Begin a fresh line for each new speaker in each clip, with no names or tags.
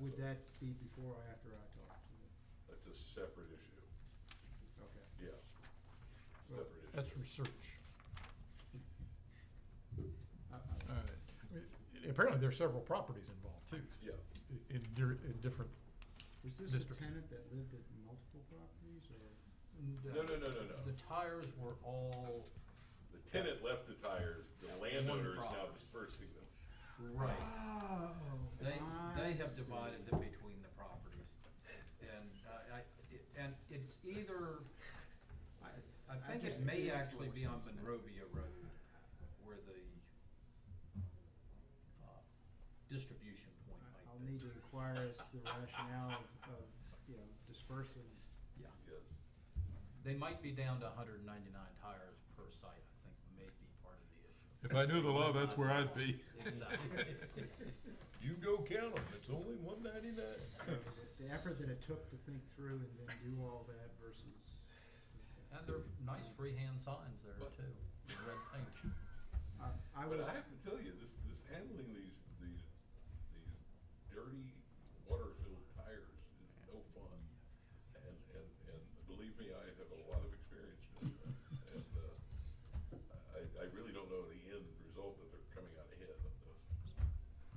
Would that be before or after I talk to them?
That's a separate issue,
Okay.
yeah. It's a
Well,
Separate issue.
That's research.
I- I-
Uh, i- Apparently, there are several properties involved too,
Yeah,
i- in, dir- in different.
Was this a
District.
tenant that lived at multiple properties or?
no, no, no, no, no.
uh, The tires were all
The tenant left the tires, the landowner is now dispersing them.
right.
Oh.
They, they have
I
divided them between the properties. And I, I, it- and it's either, I, I
I
think
just-
it may
it makes
actually
more
be on
sense now.
Monrovia Road where the, uh, distribution point
I- I'll
might be.
need to inquire as to the rationale of, of, you know, dispersing.
Yeah,
Yes,
they might be down to hundred and ninety-nine tires per site, I think may be part of the issue.
If I knew the law, that's where I'd be.
Exactly.
You go count them, it's only one ninety-nine.
So the- The effort that it took to think through and then do all that versus.
And they're nice freehand signs there
But-
too, in red paint.
I, I
but
would,
I have to tell you, this, this handling these, these, these dirty water-filled tires is no fun. And, and, and believe me, I have a lot of experience in that. And, uh, I, I really don't know the end result that they're coming out ahead of those.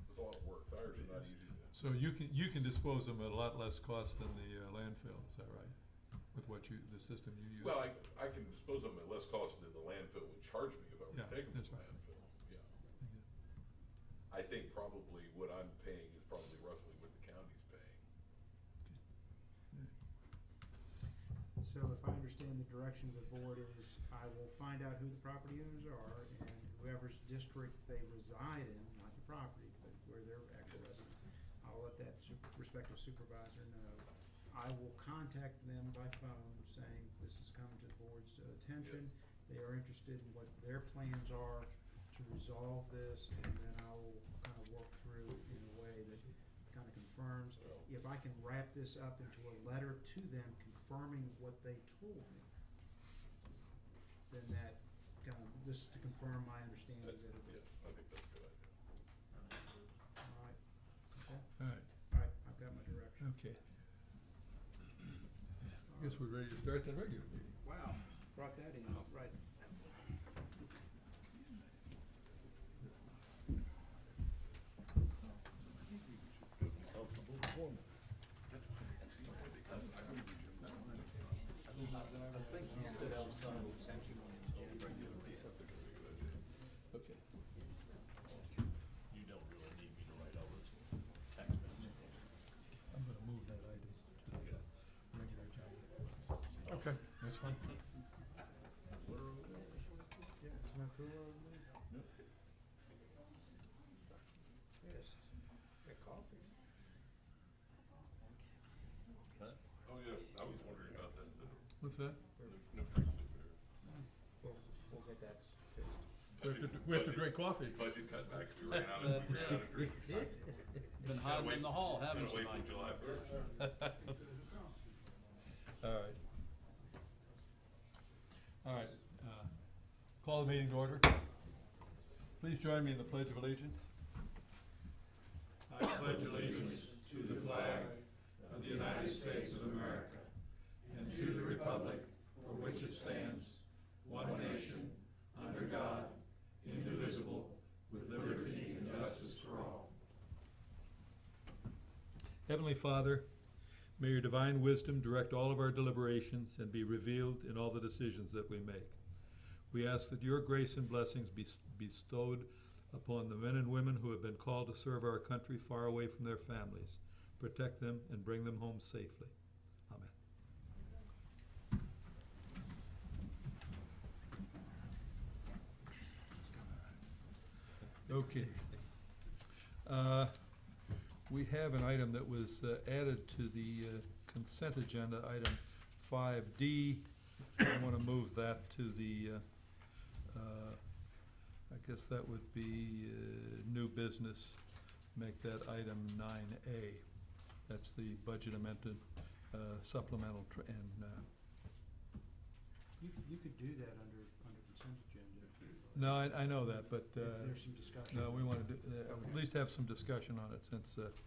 It's a lot of work, tires are not easy to.
So you can, you can dispose them at a lot less cost than the uh, landfill, is that right? With what you, the system you use?
Well, I, I can dispose of them at less cost than the landfill would charge me if I were to
Yeah,
take them to
that's
the
right.
landfill, yeah. I think probably what I'm paying is probably roughly what the county's paying.
so if I understand the direction of the board is, I will find out who the property owners are and whoever's district they reside in, not the property, but where they're actually resident. I'll let that su- respective supervisor know. I will contact them by phone saying this has come to the board's uh, attention. They are interested in what their plans are to resolve this, and then I will kind of work through in a way that kind of confirms.
Well-
If I can wrap this up into a letter to them confirming what they told me, then that kind of, this is to confirm my understanding
That's,
that, it-
yeah, I think that's a good idea.
all right, okay,
All right,
all right, I've got my direction.
okay. I guess we're ready to start the regular meeting.
Wow, brought that in, right.
I think he stood outside essentially until the regular meeting.
Okay.
You don't really need me to write all those tax bills.
I'm gonna move that item to the regular agenda.
Okay, that's fine.
Yeah, is my crew over there? Yes, got coffee.
Oh, yeah, I was wondering about that, no,
What's that?
no drinks over here.
We'll, we'll get that fixed.
We have to, we have to
Budget-
drink coffee.
Budget cutbacks, we ran out of, we ran out of drinks.
Been hiding in the hall, haven't
Gotta
you,
wait
Mike?
till July first.
All right. All right, uh, call the meeting to order. Please join me in the pledge of allegiance. Heavenly Father, may your divine wisdom direct all of our deliberations and be revealed in all the decisions that we make. We ask that your grace and blessings be bestowed upon the men and women who have been called to serve our country far away from their families. Protect them and bring them home safely. Amen. Okay. Uh, we have an item that was uh, added to the uh, consent agenda, item five D. I want to move that to the, uh, uh, I guess that would be uh, new business. Make that item nine A. That's the budget amendment uh, supplemental tr- and, uh,
You could, you could do that under, under consent agenda. if you like.
no, I I know that, but
If
uh,
there's some discussion.
no, we want to, at
Okay.
least have some discussion on it since uh,